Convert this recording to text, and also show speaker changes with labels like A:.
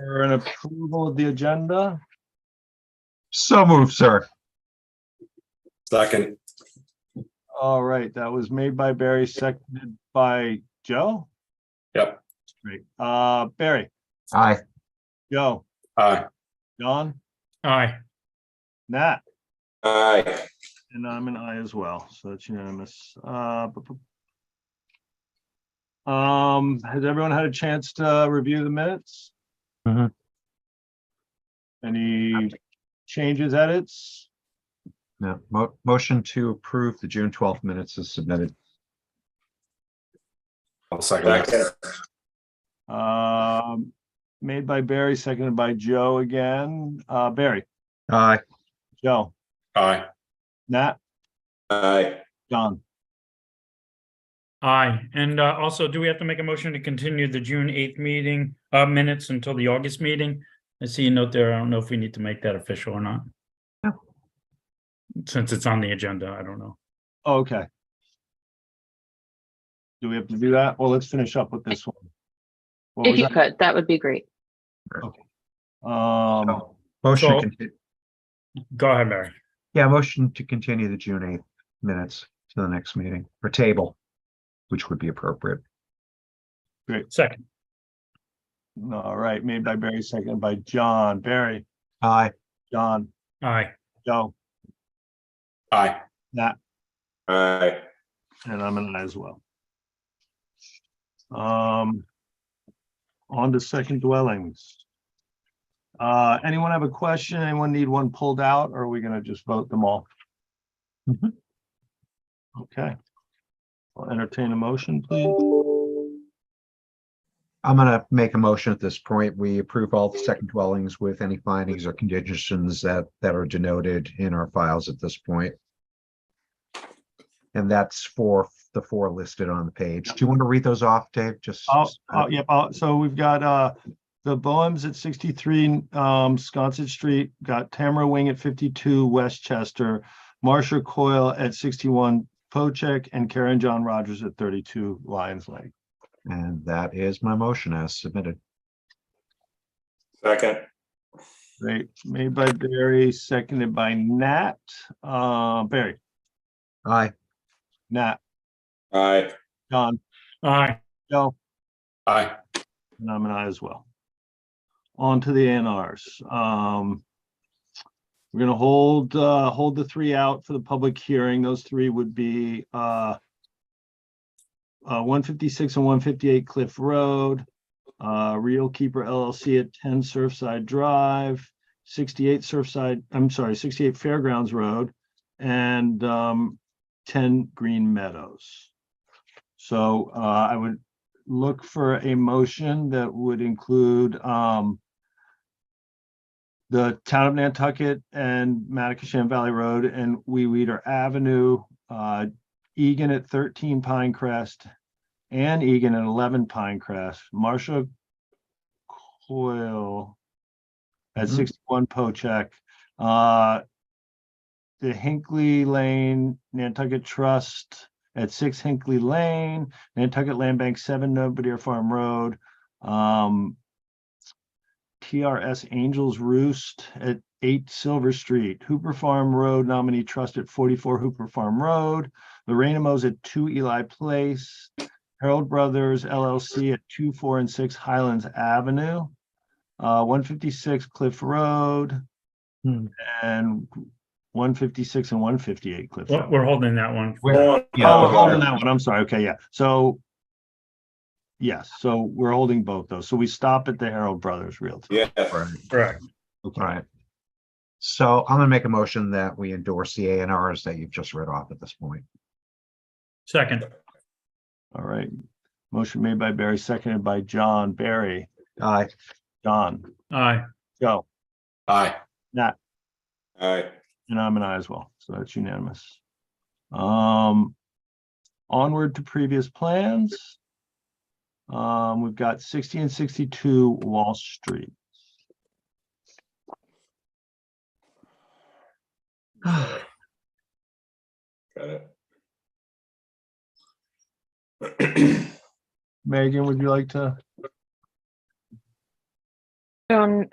A: for an approval of the agenda?
B: So moved, sir.
C: Second,
A: All right, that was made by Barry, seconded by Joe?
C: Yep.
A: Great. Uh, Barry,
B: Aye.
A: Joe,
C: aye.
A: Don,
D: Aye.
A: Nat?
C: Aye.
A: And I'm an I as well, so that's unanimous. Uh, bu- bu- Um, has everyone had a chance to review the minutes?
B: Mhm.
A: Any changes, edits?
B: No, mo- motion to approve the June twelfth minutes is submitted.
C: I'll second that.
A: Um, made by Barry, seconded by Joe again. Uh, Barry,
B: Aye.
A: Joe,
C: Aye.
A: Nat,
C: Aye.
A: John.
D: Aye. And uh, also, do we have to make a motion to continue the June eighth meeting, uh, minutes until the August meeting? I see a note there. I don't know if we need to make that official or not.
B: No.
D: Since it's on the agenda, I don't know.
A: Okay. Do we have to do that? Well, let's finish up with this one. What
E: If
A: was
E: you could, that would be great.
A: that? Um,
B: Motion,
D: So-
B: to conti-
D: Go ahead, Mary.
B: yeah, motion to continue the June eighth minutes to the next meeting or table, which would be appropriate.
D: Second.
A: all right, made by Barry, seconded by John. Barry,
B: Aye.
A: John,
D: Aye.
A: Joe,
C: Aye.
A: Nat,
C: Aye.
A: and I'm an I as well. Um, on to second dwellings. Uh, anyone have a question? Anyone need one pulled out or are we gonna just vote them all?
B: Mhm.
A: Okay. I'll entertain a motion, please.
B: I'm gonna make a motion at this point. We approve all the second dwellings with any findings or conditions that, that are denoted in our files at this point. And that's for the four listed on the page. Do you want to read those off, Dave? Just.
A: Oh, oh, yep, oh, so we've got, uh, the Boems at sixty-three, um, Sconset Street, got Tamara Wing at fifty-two Westchester, Marsha Coyle at sixty-one Pocheck, and Karen John Rogers at thirty-two Lions Lake.
B: And that is my motion as submitted.
C: Second.
A: Great, made by Barry, seconded by Nat. Uh, Barry,
B: Aye.
A: Nat,
C: Aye.
A: John,
D: Aye.
A: Joe,
C: Aye.
A: and I'm an I as well. On to the ANRs. Um, we're gonna hold, uh, hold the three out for the public hearing. Those three would be, uh, uh, one fifty-six and one fifty-eight Cliff Road, uh, Real Keeper LLC at ten Surfside Drive, sixty-eight Surfside, I'm sorry, sixty-eight Fairgrounds Road, and, um, ten Green Meadows. So, uh, I would look for a motion that would include, um, the town of Nantucket and Matacashan Valley Road and Wee Weeder Avenue, uh, Egan at thirteen Pinecrest, Ann Egan at eleven Pinecrest, Crest, Marsha Coyle at
B: Mhm.
A: sixty-one Pocheck, uh, the Hinkley Lane Nantucket Trust at six Hinkley Lane, Nantucket Land Bank, seven Nobody Farm Road. Um. TRS Angels Roost at eight Silver Street, Hooper Farm Road nominee trust at forty-four Hooper Farm Road. Lorena Mo's at two Eli Place, Harold Brothers LLC at two, four, and six Highlands Avenue. Uh, one fifty-six Cliff Road.
B: Hmm.
A: And one fifty-six and one fifty-eight Cliff.
D: We're
A: Road.
D: we're holding that one.
A: Oh, we're
B: Yeah,
A: holding that one. I'm sorry. Okay, yeah. So. Yes, so we're holding both those. So we stop at the Harold Brothers Realty.
C: Yeah.
B: right,
D: Correct.
B: right. So I'm gonna make a motion that we endorse the A and Rs that you've just read off at this point.
D: Second.
A: All right. Motion made by Barry, seconded by John. Barry,
B: Aye.
A: John,
D: Aye.
A: Joe,
C: Aye.
A: Nat.
C: Aye.
A: and I'm an I as well. So that's unanimous. Um. Onward to previous plans. Um, we've got sixty and sixty-two Wall Street.
C: Got it.
A: Megan, would you like to?
E: So